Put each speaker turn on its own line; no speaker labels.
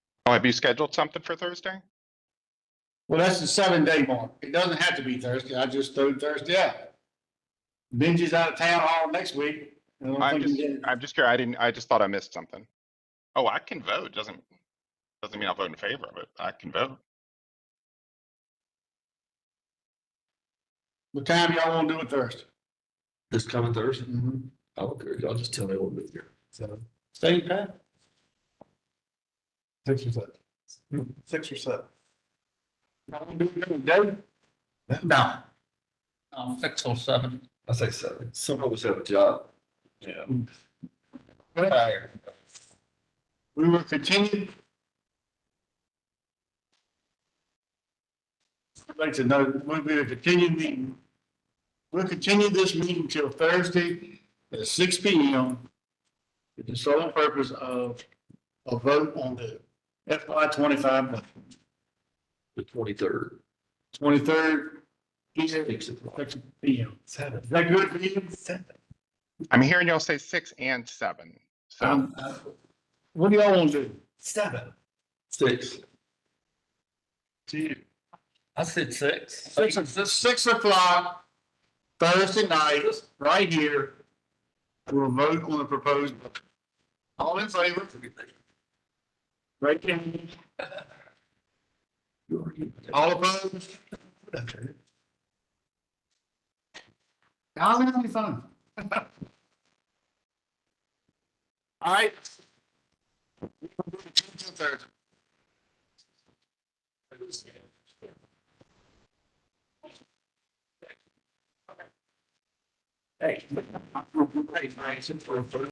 Oh, have you scheduled something for Thursday?
Well, that's the seven day mark. It doesn't have to be Thursday. I just threw Thursday out. Benji's out of town all next week. I don't
I'm
think he
just,
can get-
I'm just curious. I didn't, I just thought I missed something. Oh, I can vote. Doesn't, doesn't mean I'll vote in favor of it. I can vote.
What time y'all wanna do it Thursday?
This coming Thursday?
Mm-hmm.
Mhm.
I don't care. Y'all just tell me what to do. So,
Same time?
Six or seven. Six or seven.
Y'all wanna do it during the day?
No. Um, six or seven.
I say seven. Some of us have a job.
Yeah.
We will continue. I'd like to know, we will continue meeting. We'll continue this meeting till Thursday at six P M. With the sole purpose of a vote on the FY twenty-five budget.
The twenty-third.
Twenty-third,
Six o'clock.
six P M.
Seven.
Is that good for you?
I'm hearing y'all say six and seven. So
Um, uh, What do y'all want to do?
Seven.
Six.
I said six.
Six, o- six o'clock Thursday night, right here. We'll vote on the proposed. budget. All in favor? Right there. All opposed? How's it gonna be fun? All right. Hey.